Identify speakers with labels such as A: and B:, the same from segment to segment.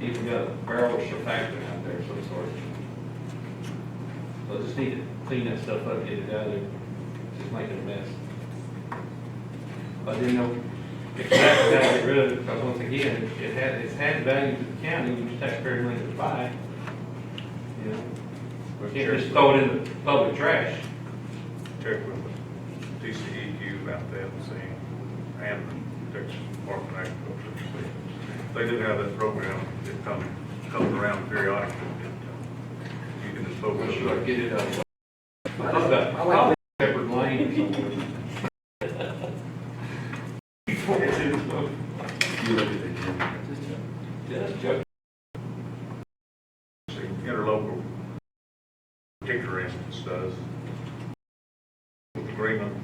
A: even got barrels or packaging out there of some sort. So just need to clean that stuff up, get it out of there, just making a mess. I didn't know exactly how to get rid of it, because once again, it- it had, it's had value to the county, which taxpayer money to buy. You know,
B: But
A: can't
B: check
A: just throw it in the public trash.
B: check with TCEQ E about that and see, and the Texas Department of Agriculture. see. They do have that program that comes, comes around periodically. that, uh, You can dispose
A: We
B: of.
A: should get it out.
C: I
A: It's
C: like-
A: about-
C: I like-
A: Shepherd Lane or somewhere.
D: You look at the gym.
A: Just joking.
B: See, interlocal, particular instance does. With agreement,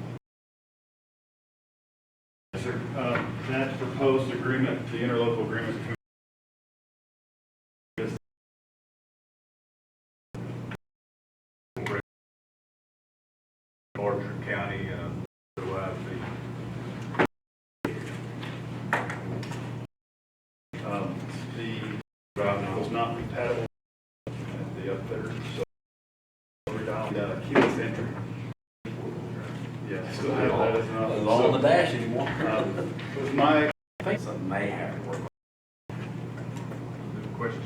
E: Yes, sir. Uh, That proposed agreement, the interlocal agreement between
B: larger county, uh, otherwise the,
E: um, the route now is not compatible with the upfitter, so Uh, we're down to keyless entry. Yeah, still have that as an option.
D: It's all in the dash anymore.
E: So, um, With my,
D: I think something may happen.
B: the question.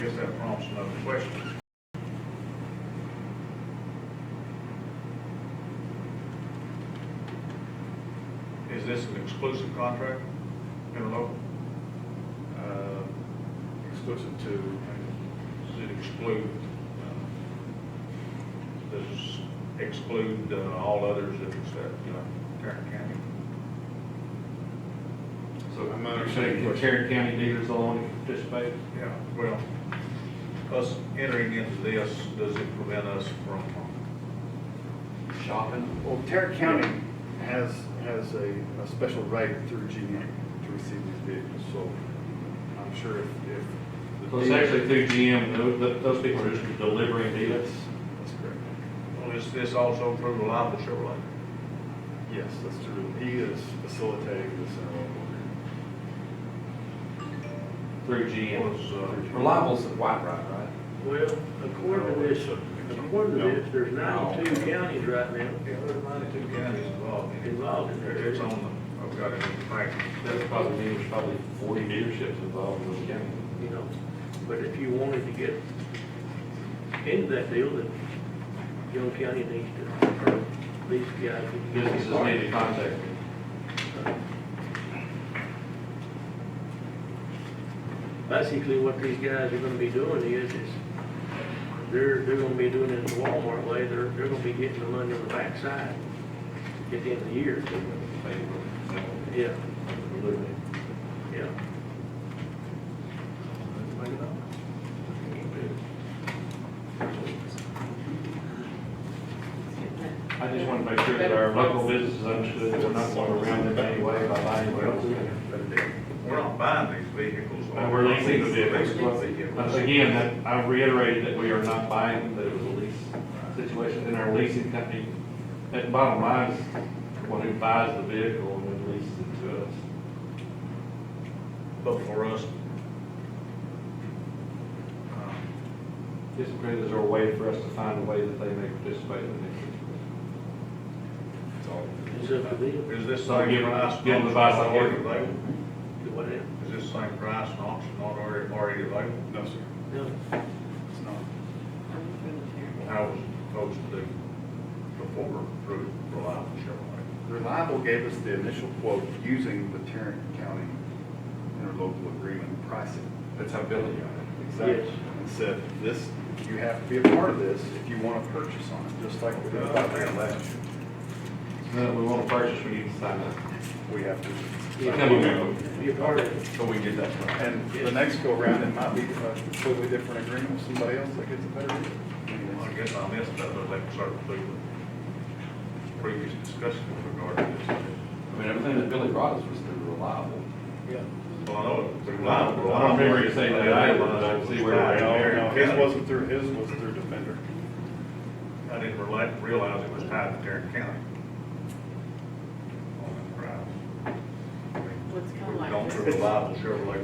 B: I guess that prompts another question. Is this an exclusive contract, interlocal?
E: uh, exclusive to,
B: Does it exclude, uh, does it exclude uh, all others except, you know, Tarrant County?
E: so I'm
A: You're saying the
E: understanding.
A: Tarrant County dealers will only participate?
B: Yeah, well, us entering into this, does it prevent us from,
A: Shopping?
E: Well, Tarrant County has, has a, a special right through GM to receive these vehicles, so I'm sure if, if. the
A: So it's
E: dealer-
A: actually through GM, those, those people are just delivering dealers.
E: That's correct.
B: well, is this also through the liable Chevrolet?
E: Yes, that's true. He is facilitating this uh, interlocal.
A: Through GM.
B: Was, uh,
D: Reliable's the white rod, right?
F: Well, according to this, according to this, there's ninety-two counties right now
B: yeah, there's ninety-two counties involved in it.
F: involved in
B: It's
F: this.
B: on the, I've got it in the packet.
A: That's probably, there's probably forty dealerships involved in those counties.
F: You know, but if you wanted to get into that deal, then Young County needs to, or these guys. need to get
A: Businesses
F: involved.
A: need to contact me.
F: Basically, what these guys are gonna be doing is, is they're, they're gonna be doing it the Walmart way, they're, they're gonna be getting the money on the backside at the end of the year. Yeah, yeah.
A: I just want to make sure that our local businesses understood that we're not going around in any way by buying vehicles.
B: We're not buying these vehicles.
A: And we're leasing the vehicles.
B: vehicles.
A: Once again, that, I reiterated that we are not buying, that it was a lease situation, and our leasing company, that bottom line is the one who buys the vehicle and then leases it to us.
B: But for us, uh,
A: Just because there's a way for us to find a way that they may participate in it.
D: It's all.
F: It's up to them,
B: is this
A: So
B: same
A: give them-
B: price?
A: give them the price I gave them.
B: Available?
F: do whatever.
B: Is this same price and auction not already, already available?
E: No, sir,
F: No,
E: it's not.
B: I was supposed to do before through Reliable Chevrolet.
E: Reliable gave us the initial quote using the Tarrant County interlocal agreement pricing.
D: That's how Billy got it.
E: Exactly.
F: Yes.
E: And said, this, you have to be a part of this if you want to purchase on it, just like we did about that last year.
A: No, Uh, we want to purchase, we need to sign up.
E: We have
A: You
E: to.
A: come on.
F: be a part of it.
D: So we get that from.
E: And the next go round, it might be a completely different agreement with somebody else that gets a better deal.
B: Well, I guess I missed that, but like sort of the previous discussion with regard to this.
D: I mean, everything that Billy brought us was through Reliable.
B: Well, I know it was Reliable.
A: I don't remember you saying that either, but I see where
E: No,
A: we're at.
E: no, his wasn't through, his was through Defender.
B: I didn't realize, realize it was tied to Tarrant County. On the price.
G: Well, it's kinda
B: We've
G: like
B: gone
G: this.
B: through Reliable Chevrolet